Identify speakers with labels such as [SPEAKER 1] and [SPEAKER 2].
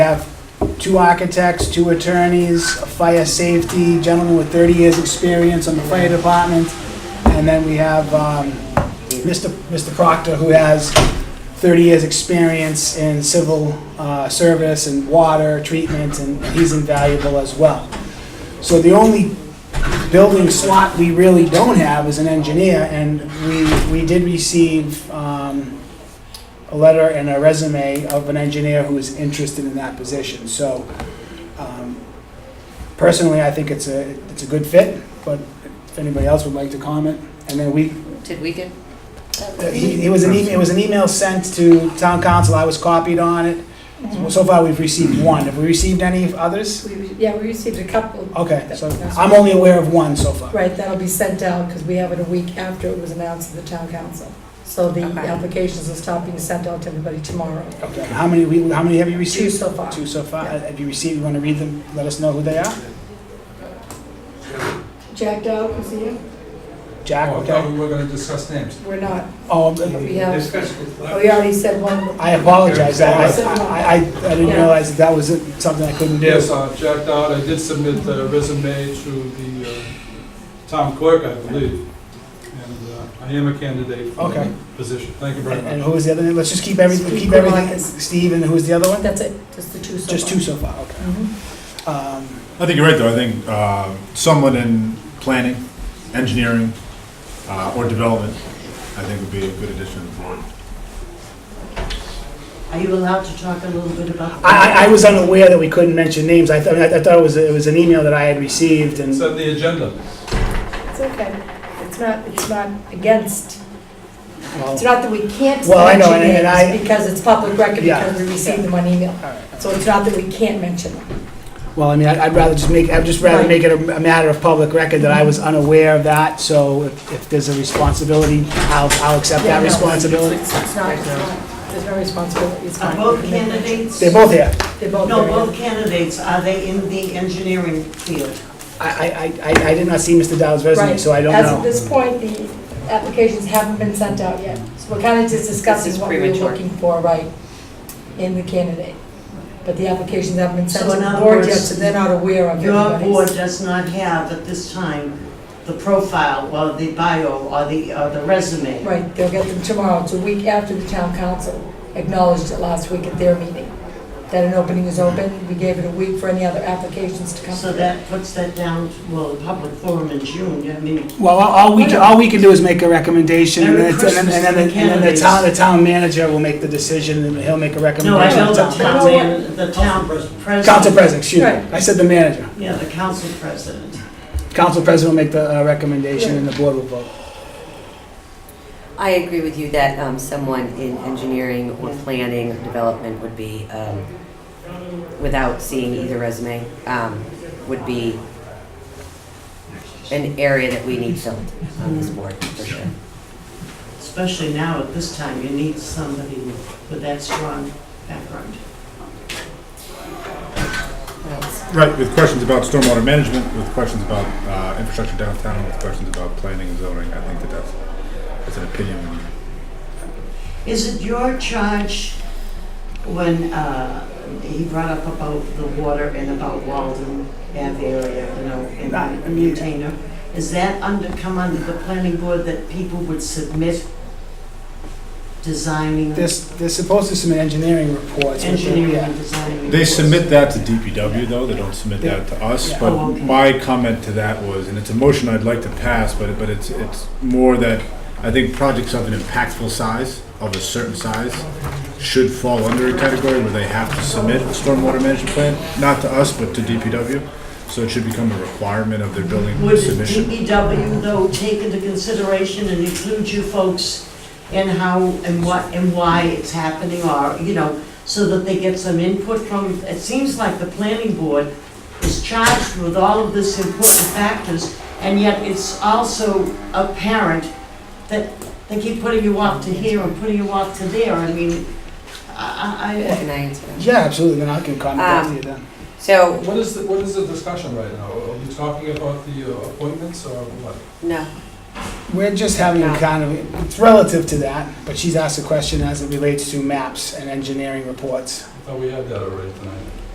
[SPEAKER 1] have two architects, two attorneys, a fire safety gentleman with 30 years' experience on the fire department, and then we have um, Mr. Mr. Proctor, who has 30 years' experience in civil uh, service and water treatment, and he's invaluable as well. So the only building slot we really don't have is an engineer, and we, we did receive um, a letter and a resume of an engineer who is interested in that position. So um, personally, I think it's a, it's a good fit, but if anybody else would like to comment. And then we, uh,
[SPEAKER 2] Did we get?
[SPEAKER 1] he- it was an email, it was an email sent to town council, I was copied on it. So far, we've received one. Have we received any others?
[SPEAKER 3] We re- Yeah, we received a couple,
[SPEAKER 1] Okay, so I'm only aware of one so far.
[SPEAKER 3] right, that'll be sent out, because we have it a week after it was announced to the town council. So the
[SPEAKER 2] Okay.
[SPEAKER 3] applications will start being sent out to everybody tomorrow.
[SPEAKER 1] Okay, how many, we- how many have you
[SPEAKER 3] Two
[SPEAKER 1] received?
[SPEAKER 3] so far.
[SPEAKER 1] Two so far. Have you received, you want to read them, let us know who they are?
[SPEAKER 3] Jack Dow, is he in?
[SPEAKER 1] Jack,
[SPEAKER 4] Oh, I thought
[SPEAKER 1] okay.
[SPEAKER 4] we were gonna discuss names.
[SPEAKER 3] We're not.
[SPEAKER 1] Oh,
[SPEAKER 3] We have,
[SPEAKER 5] Discuss with
[SPEAKER 3] oh, we already said one.
[SPEAKER 1] I apologize, I, I, I- I didn't realize that that was something I couldn't do.
[SPEAKER 4] Yes, uh, Jack Dodd, I did submit the resume to the uh, town clerk, I believe, and uh, I am a candidate for
[SPEAKER 1] Okay.
[SPEAKER 4] the position. Thank you very
[SPEAKER 1] And and
[SPEAKER 4] much.
[SPEAKER 1] who was the other, name? let's just keep everything, keep
[SPEAKER 3] Steve
[SPEAKER 1] everything,
[SPEAKER 3] Kulakis.
[SPEAKER 1] Steve, and who was the other one?
[SPEAKER 3] That's it, just the two so far.
[SPEAKER 1] Just two so far, okay.
[SPEAKER 3] Mhm.
[SPEAKER 1] Um,
[SPEAKER 6] I think you're right, though. I think uh, someone in planning, engineering, uh, or development, I think would be a good addition to the board.
[SPEAKER 7] Are you allowed to talk a little bit about?
[SPEAKER 1] I, I, I was unaware that we couldn't mention names, I thought, I thought it was, it was an email that I had received and.
[SPEAKER 4] It's on the agenda.
[SPEAKER 3] It's okay. It's not, it's not against,
[SPEAKER 1] well,
[SPEAKER 3] it's not that we can't
[SPEAKER 1] Well, I know,
[SPEAKER 3] mention
[SPEAKER 1] and- and I-
[SPEAKER 3] names because it's public record,
[SPEAKER 1] Yeah.
[SPEAKER 3] because we received them on email.
[SPEAKER 1] all right.
[SPEAKER 3] So it's not that we can't mention them.
[SPEAKER 1] Well, I mean, I- I'd rather just make, I'd just rather
[SPEAKER 3] Right.
[SPEAKER 1] make it a a matter of public record that I was unaware of that, so if, if there's a responsibility, I'll, I'll accept
[SPEAKER 3] Yeah,
[SPEAKER 1] that
[SPEAKER 3] no,
[SPEAKER 1] responsibility.
[SPEAKER 3] It's it's not, it's not, there's no responsibility, it's
[SPEAKER 7] Are
[SPEAKER 3] fine.
[SPEAKER 7] Uh, both candidates?
[SPEAKER 1] They're both here.
[SPEAKER 3] They're both
[SPEAKER 7] No,
[SPEAKER 3] very-
[SPEAKER 7] both candidates, are they in the engineering field?
[SPEAKER 1] I, I, I, I did not see Mr. Dowd's resume,
[SPEAKER 3] Right.
[SPEAKER 1] so I don't
[SPEAKER 3] As of
[SPEAKER 1] know.
[SPEAKER 3] this point, the applications haven't been sent out yet, so we're kind of just discussing
[SPEAKER 2] is
[SPEAKER 3] what we're
[SPEAKER 2] premature.
[SPEAKER 3] looking for, right, in the candidate. But the applications haven't been sent
[SPEAKER 7] So
[SPEAKER 3] to
[SPEAKER 7] in
[SPEAKER 3] the
[SPEAKER 7] other
[SPEAKER 3] board yet,
[SPEAKER 7] words,
[SPEAKER 3] so they're not aware of
[SPEAKER 7] Your board
[SPEAKER 3] anybody's.
[SPEAKER 7] does not have at this time the profile or the bio or the, or the resume.
[SPEAKER 3] Right, they'll get them tomorrow, it's a week after the town council acknowledged it last week at their meeting, that an opening is open, we gave it a week for any other applications to come.
[SPEAKER 7] So that puts that down, to- well, the public forum in June, I mean,
[SPEAKER 1] Well, all- all we, can- all we can do is make a recommendation, and then,
[SPEAKER 7] Merry
[SPEAKER 1] it's- and then, and then-
[SPEAKER 7] Christmas to the
[SPEAKER 1] and then the
[SPEAKER 7] candidates.
[SPEAKER 1] town, the town manager will make the decision, and he'll make a
[SPEAKER 7] no, I
[SPEAKER 1] recommendation to
[SPEAKER 7] know the
[SPEAKER 1] the town.
[SPEAKER 7] town, man- the town president.
[SPEAKER 1] Council president, excuse me,
[SPEAKER 3] Right.
[SPEAKER 1] I said the manager.
[SPEAKER 7] Yeah, the council president.
[SPEAKER 1] Council president will make the uh, recommendation, and the board will vote.
[SPEAKER 2] I agree with you that um, someone in engineering or planning or development would be, um, without seeing either resume, um, would be an area that we need filled on this board, for sure.
[SPEAKER 7] Especially now at this time, you need somebody with that strong background.
[SPEAKER 6] Right, with questions about stormwater management, with questions about uh, infrastructure downtown, with questions about planning and zoning, I think that that's, that's an opinion we need.
[SPEAKER 7] Is it your charge when uh, he brought up about the water and about Walden Ave area, you know, and
[SPEAKER 1] Right, I
[SPEAKER 7] the
[SPEAKER 1] mean-
[SPEAKER 7] container? Is that under, come under the planning board that people would submit designing,
[SPEAKER 1] This, they're supposed to submit engineering reports. but they're-
[SPEAKER 7] engineering
[SPEAKER 1] yeah.
[SPEAKER 7] and designing?
[SPEAKER 6] They
[SPEAKER 7] reports?
[SPEAKER 6] submit that to DPW, though, they don't submit that to us,
[SPEAKER 1] Yeah.
[SPEAKER 7] Oh,
[SPEAKER 6] but
[SPEAKER 7] okay.
[SPEAKER 6] my comment to that was, and it's a motion I'd like to pass, but, but it's, it's more that I think projects of an impactful size, of a certain size, should fall under a category where they have to submit a stormwater management plan, not to us, but to DPW, so it should become a requirement of their building
[SPEAKER 7] Would
[SPEAKER 6] submission.
[SPEAKER 7] DPW though take into consideration and include you folks in how and what and why it's happening or, you know, so that they get some input from, it seems like the planning board is charged with all of this important factors and yet it's also apparent that they keep putting you off to here and putting you off to there. I mean, I, I- I,
[SPEAKER 2] Can I answer that?
[SPEAKER 1] Yeah, absolutely, then I can contact
[SPEAKER 2] Um,
[SPEAKER 1] you then.
[SPEAKER 2] So,
[SPEAKER 4] What is, the- what is the discussion right now? Are we talking about the uh, appointments or what?
[SPEAKER 2] no,
[SPEAKER 1] We're just having a
[SPEAKER 2] no.
[SPEAKER 1] kind of, it's relative to that, but she's asked a question as it relates to maps and engineering reports.
[SPEAKER 4] I thought thought we had that already tonight.